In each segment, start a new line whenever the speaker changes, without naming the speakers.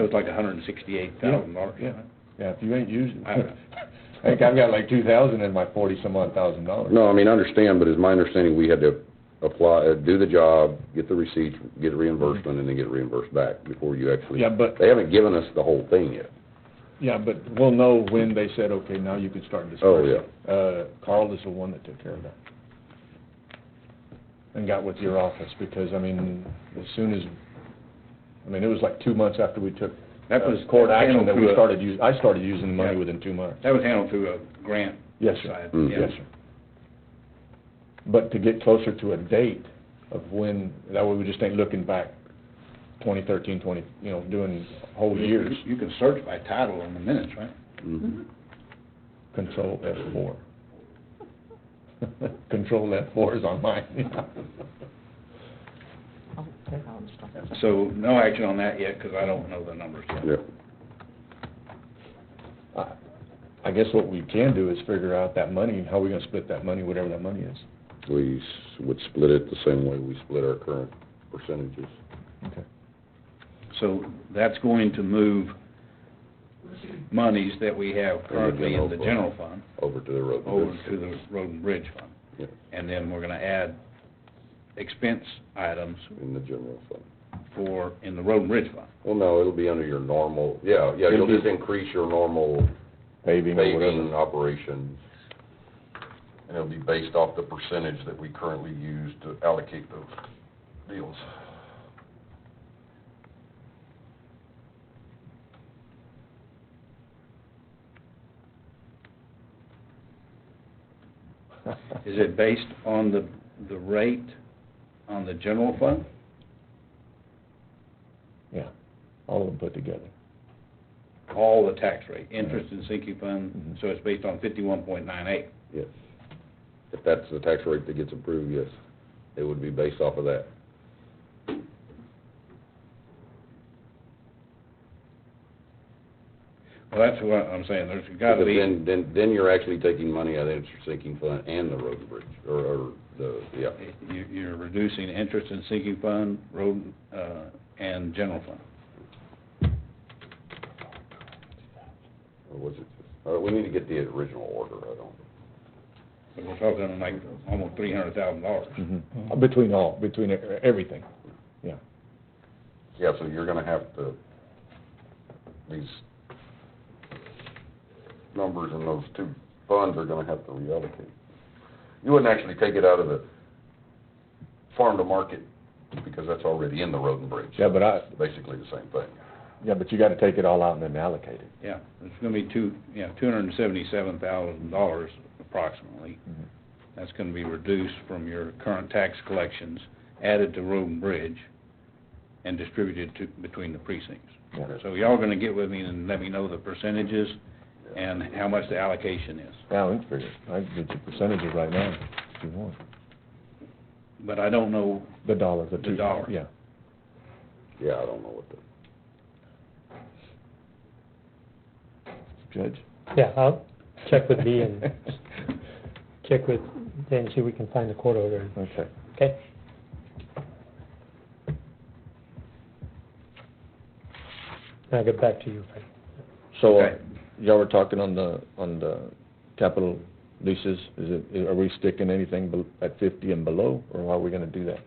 It was like a hundred and sixty-eight thousand dollars.
Yeah, Yeah, if you ain't using,
I don't know.
I think I've got like two thousand in my forty-some odd thousand dollars.
No, I mean, I understand, but it's my understanding we had to apply, uh, do the job, get the receipts, get reimbursement, and then get reimbursed back before you actually.
Yeah, but,
They haven't given us the whole thing yet.
yeah, but we'll know when they said, okay, now you can
Oh,
start dispersing. Uh, Carl is the one that took care of that. And got with your office, because, I mean, as soon as, I mean, it was like two months after we took
That was
uh, court action
handled
that we
through a-
started us I started using the money
Yeah.
within two months.
That was handled through a grant
Yes, sir.
side.
Mm.
yeah.
Yes, sir. But to get closer to a date of when, that way we just ain't looking back 2013, 20, you know, doing whole
You-
years,
You can search by title on the minutes, right?
Mm-hmm.
Mhm.
control F4. Control F4 is on mine.
So no action on that yet, because I don't know the numbers yet.
Yeah.
I- I guess what we can do is figure out that money, and how we gonna split that money, whatever that money is.
We s- would split it the same way we split our current percentages.
Okay.
So that's going to move monies that we have currently in the general fund
over to the road.
over to the road and bridge fund.
Yeah.
And then we're gonna add expense items
In the general fund.
for, in the road and bridge fund.
Well, no, it'll be under your normal, yeah, yeah,
It'll
you'll
be-
just increase your normal
Paving or
paving
whatever.
operations. And it'll be based off the percentage that we currently use to allocate those deals.
Is it based on the, the rate on the general fund?
Yeah, all of them put together.
All the tax rate, interest and sinking fund,
Mhm.
so it's based on fifty-one point nine eight.
Yes. If that's the tax rate that gets approved, yes, it would be based off of that.
Well, that's what I'm saying, there's gotta
Because
be,
Then, then, then you're actually taking money out of the interest sinking fund and the road and bridge, or, or the, yeah.
you, you're reducing interest and sinking fund, road, uh, and general fund.
Or was it just, uh, we need to get the original order, I don't.
But we're talking like almost three hundred thousand dollars.
Mhm.
Mm-hmm.
Between all, between e- everything, yeah.
Yeah, so you're gonna have to, these numbers in those two funds are gonna have to reallocate. You wouldn't actually take it out of the farm to market, because that's already in the road and bridge.
Yeah, but I,
Basically the same thing.
yeah, but you gotta take it all out and then allocate it.
Yeah, it's gonna be two, yeah, two hundred and seventy-seven thousand dollars approximately.
Mhm.
That's gonna be reduced from your current tax collections, added to road and bridge, and distributed to, between the precincts.
Yeah.
So y'all gonna get with me and let me know the percentages and how much the allocation is.
Yeah, we can figure it. I can get you percentages right now, if you want.
But I don't know,
The dollar, the two.
dollar.
Yeah.
Yeah, I don't know what the.
Judge?
Yeah, I'll check with Dee and check with, Dan see if we can find the court order,
Okay.
okay? And I'll get back to you, Frank.
So, uh,
Okay.
y'all were talking on the, on the capital leases, is it, are we sticking anything bel- at fifty and below, or how are we gonna do that?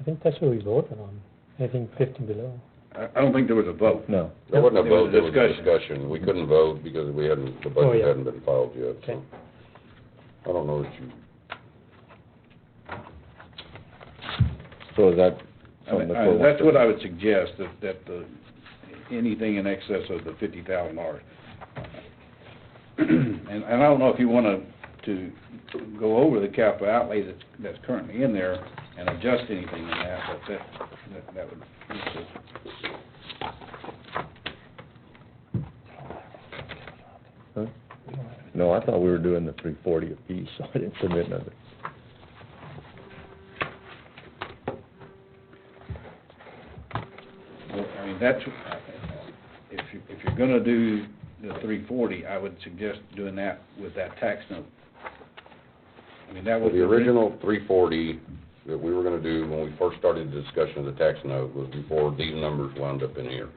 I think that's what we voted on, I think fifteen below.
I, I don't think there was a vote.
No.
There wasn't a
There was
vote,
a
there was a
discussion.
discussion. We couldn't vote because we hadn't, the
Oh,
budget
yeah.
hadn't been filed yet, so.
Okay.
I don't know that you,
So is that
I
something
mean,
that
I-
we'll...
That's what I would suggest, that, that the, anything in excess of the fifty thousand dollars. And, and I don't know if you wanna, to go over the capital outlay that's, that's currently in there and adjust anything in that, but that, that, that would,
No, I thought we were doing the three forty apiece, so I didn't submit nothing.
well, I mean, that's, if you, if you're gonna do the three forty, I would suggest doing that with that tax note. I mean, that was.
the original three forty that we were gonna do when we first started the discussion of the tax note was before these numbers wound up in here.